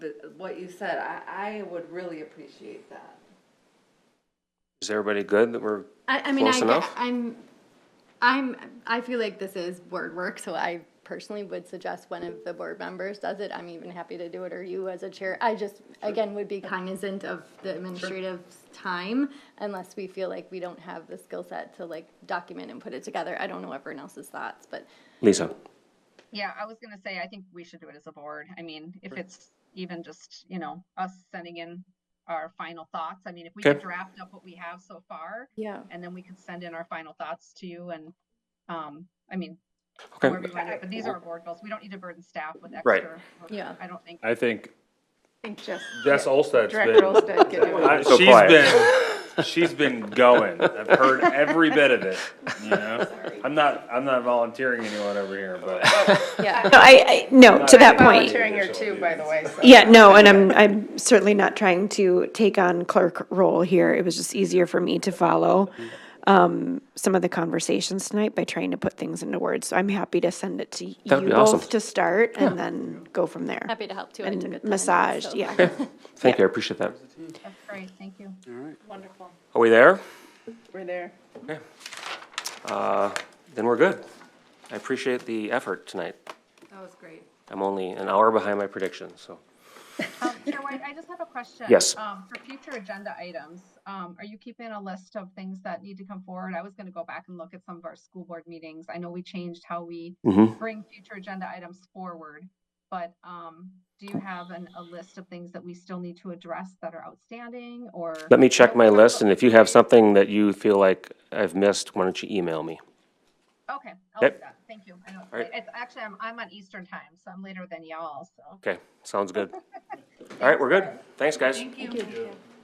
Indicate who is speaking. Speaker 1: what you said, I, I would really appreciate that.
Speaker 2: Is everybody good that we're,
Speaker 3: I, I mean, I,
Speaker 2: Close enough?
Speaker 3: get- I'm, I'm, I feel like this is board work, so I personally would suggest one of the board members does it. I'm even happy to do it, or you as a chair. I just, again, would be cognizant of the administrative time unless we feel like we don't have the skill set to like document and put it together. I don't know everyone else's thoughts, but
Speaker 2: Lisa?
Speaker 4: Yeah, I was gonna say, I think we should do it as a board. I mean, if it's even just, you know, us sending in our final thoughts. I mean, if we could
Speaker 2: Okay.
Speaker 4: draft up what we have so far,
Speaker 3: yeah.
Speaker 4: and then we could send in our final thoughts to you and, um, I mean,
Speaker 2: Okay,
Speaker 4: wherever you want to, but these are our board goals. We don't need to burden staff with
Speaker 2: Right.
Speaker 4: extra. work.
Speaker 3: Yeah.
Speaker 4: I don't think.
Speaker 5: I think
Speaker 6: I think just
Speaker 5: Jess Olsted's
Speaker 6: Director
Speaker 5: been,
Speaker 6: Olsted can do it.
Speaker 5: I-
Speaker 2: So
Speaker 5: she's
Speaker 2: quiet.
Speaker 5: been, she's been going. I've heard every bit of it, you know? I'm not, I'm not volunteering anyone over here, but
Speaker 3: Yeah,
Speaker 7: No, I, I, no, to that point.
Speaker 6: Volunteering here too, by the way, so.
Speaker 7: Yeah, no, and I'm, I'm certainly not trying to take on clerk role here. It was just easier for me to follow um, some of the conversations tonight by trying to put things into words. So I'm happy to send it to you
Speaker 2: That'd be awesome.
Speaker 7: both to start and then go from there.
Speaker 3: happy to help too. I took a
Speaker 7: And
Speaker 3: ton,
Speaker 7: massage,
Speaker 3: so-
Speaker 7: yeah.
Speaker 2: Thank you, I appreciate that.
Speaker 4: That's great, thank you.
Speaker 6: Wonderful.
Speaker 2: Are we there?
Speaker 6: We're there.
Speaker 2: Uh, Then we're good. I appreciate the effort tonight.
Speaker 1: That was great.
Speaker 2: I'm only an hour behind my prediction, so.
Speaker 4: Um, Chair White, I just have a question.
Speaker 2: Yes.
Speaker 4: Um, for future agenda items, um, are you keeping a list of things that need to come forward? I was gonna go back and look at some of our school board meetings. I know we changed how we
Speaker 2: Mhm.
Speaker 4: bring future agenda items forward. But, um, do you have an, a list of things that we still need to address that are outstanding or?
Speaker 2: Let me check my list, and if you have
Speaker 4: some,
Speaker 2: something that you feel like I've missed, why don't you email me?
Speaker 4: Okay, I'll
Speaker 2: Yep.
Speaker 4: do that. Thank you. I know, it's
Speaker 2: All right.
Speaker 4: late. it's actually, I'm, I'm on Eastern time, so I'm later than y'all, so.
Speaker 2: Okay, sounds good. All right, we're good. Thanks, guys.
Speaker 1: Thank you.